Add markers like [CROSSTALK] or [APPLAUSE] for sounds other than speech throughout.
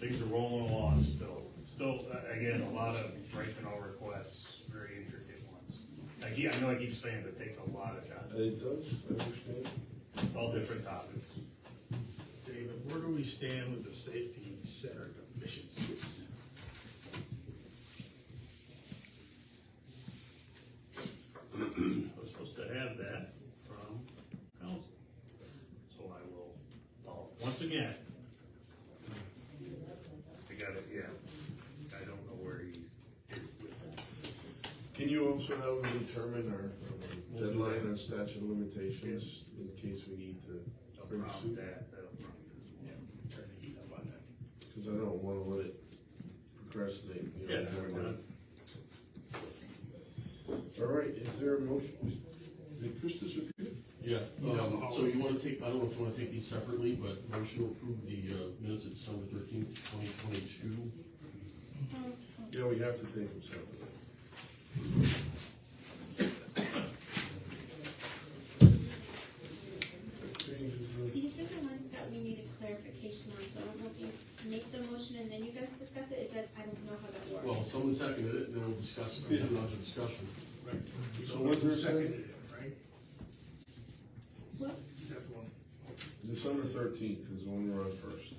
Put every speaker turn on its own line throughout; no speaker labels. These are rolling along still, still, uh, again, a lot of right to know requests, very intricate ones. I keep, I know I keep saying, but it takes a lot of time,
It does, I understand.
It's all different topics.
David, where do we stand with the safety center deficiencies?
I was supposed to have that from council. So I will, follow- once again. I got it, yeah. I don't know where he is with that.
Can you also help me determine our um,
We'll do
deadline
that.
on statute of limitations in case we need to
I'll
bring
prompt
suit?
that, that'll prompt
Yeah, turn the heat up on that.
Cause I don't wanna let it procrastinate, you
Yeah,
know.
we're
more
not-
than- All right, is there a motion? Did Christus appear?
Yeah,
Yeah.
um, so you wanna take, I don't know if you wanna take these separately, but motion to approve the, uh, minutes of December thirteenth, twenty twenty-two.
Yeah, we have to take him separately. Changes in-
These are the ones that we needed clarification on, so I don't know if you make the motion and then you guys discuss it, it does, I don't know how that works.
Well, someone seconded it, and then we'll discuss, we'll have another discussion.
Right.
So what's the
Seconded it,
second?
Right?
What?
Is that the one?
December thirteenth is when we're on first.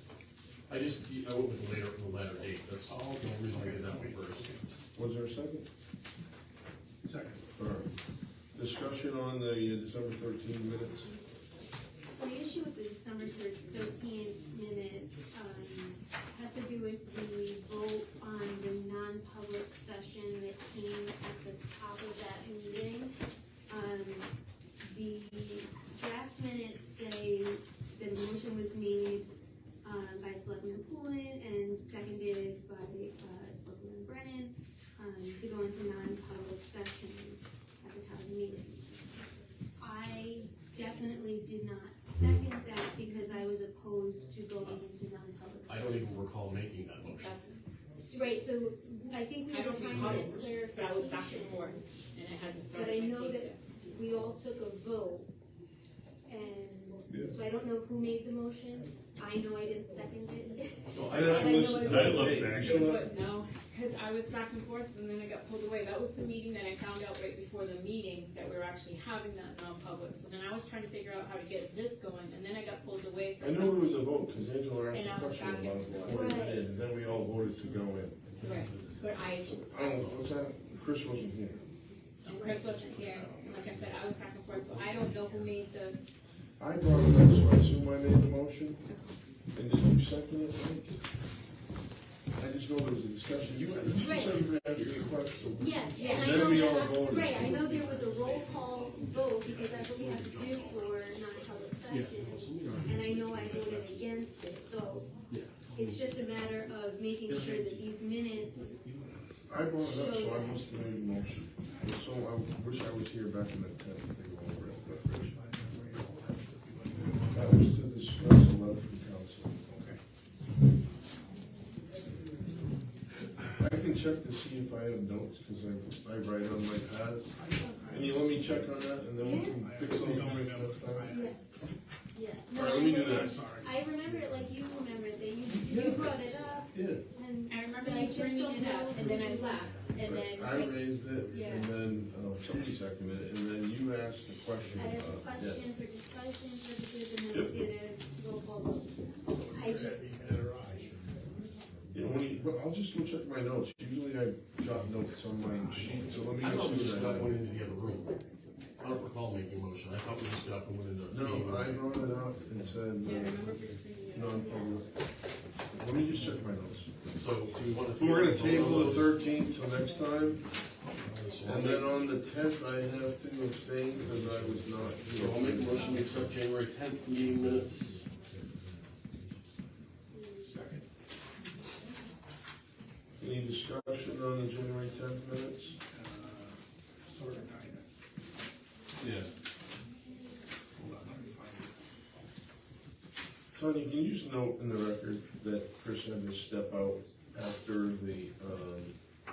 I just, I went with the later, the latter date, that's the
Oh,
only
okay.
reason I did that
Okay,
one first.
okay.
Was there a second?
Second.
All right. Discussion on the uh, December thirteen minutes.
So the issue with the December thir- thirteen minutes, um, has to do with the vote on the non-public session that came at the top of that meeting. Um, the draft minutes say that the motion was made, um, by Selectman Poulin and seconded by, uh, Selectman Brennan, um, to go into non-public session at the top of the meeting. I definitely did not second that because I was opposed to going into non-public
I don't
session.
even recall making that motion.
S- Right, so I think we
I
were
don't
trying
recall
to
it,
get
but I was back and forth,
clarification.
and it hasn't
But I
started my
know
tape
that
yet.
we all took a vote.
Yeah.
And so I don't know who made the motion. I know I didn't second it. [LAUGHS]
No,
I don't-
I looked back.
You know what?
But no, because I was back and forth, and then I got pulled away, that was the meeting that I found out right before the meeting that we were actually having that non-public, so then I was trying to figure out how to get this going, and then I got pulled away for
I know there
some.
was a vote, cause Angela asked
And I
a
was
question
back
about
and
it before we
forth.
did, and then we all voted to go in.
Right, but I,
I don't know, what's that? Chris wasn't here.
and Chris wasn't here, and like I said, I was back and forth, so I don't know who made the,
I brought it up, so I assume I made the motion. And did you second it, Mike? I just know there was a discussion. You, you
Right.
said you had your question.
Yes, and I
Then
know
we all
that,
voted.
right, I know there was a roll call vote because that's what we have to do for non-public session. And I know I voted against it, so
Yeah.
it's just a matter of making sure that these minutes
I brought it up, so I must have made the motion. So I wish I was here back in that tent to go over it, but that was to discuss a letter from council. I can check to see if I have notes, because I, I write on my pads. Can you let me check on that, and then we can
I
fix all
really
the
don't
minutes
remember.
next time?
I-
Yeah.
All right, let me do
I'm
that.
sorry.
I remember it like you remember it, that you, you brought it up,
Yeah,
and
I remember
I
you
just
bringing
don't
it
know
up, and then
who
I left, and
but I
then,
raised it,
Yeah.
and then, uh, somebody seconded it, and then you asked the question
I asked a
about, yeah.
question for discussion purposes, and then I did a roll call vote. I just,
You know, when you, but I'll just go check my notes, usually I jot notes on my sheet, so let me
I
just
thought we
see
just got one
that.
into the other room. I don't recall making a motion, I thought we just got one into. the
No, I brought it up and
yeah, I
said,
remember briefly,
uh,
yeah.
non-public. Let me just check my notes.
So do we wanna?
We're gonna
vote on
table the
those?
thirteenth till next time,
So I'll
and
make-
then on the tenth, I have to abstain because I was not
So I'll make a
here.
motion to accept January tenth meeting minutes.
Second.
Any discussion on the January tenth minutes?
Uh, Sort of, kind of.
Yeah.
Hold on, let me find it.
Tony, can you just note in the record that Chris had to step out after the, um,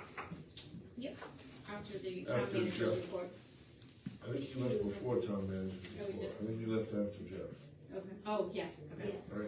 after the
After
town manager's
Jeff.
report.
I think you left before Tom manager
No, Oh, we
before.
did.
I think you left after Jeff.
Okay. Oh, yes, okay.
yes.
All right,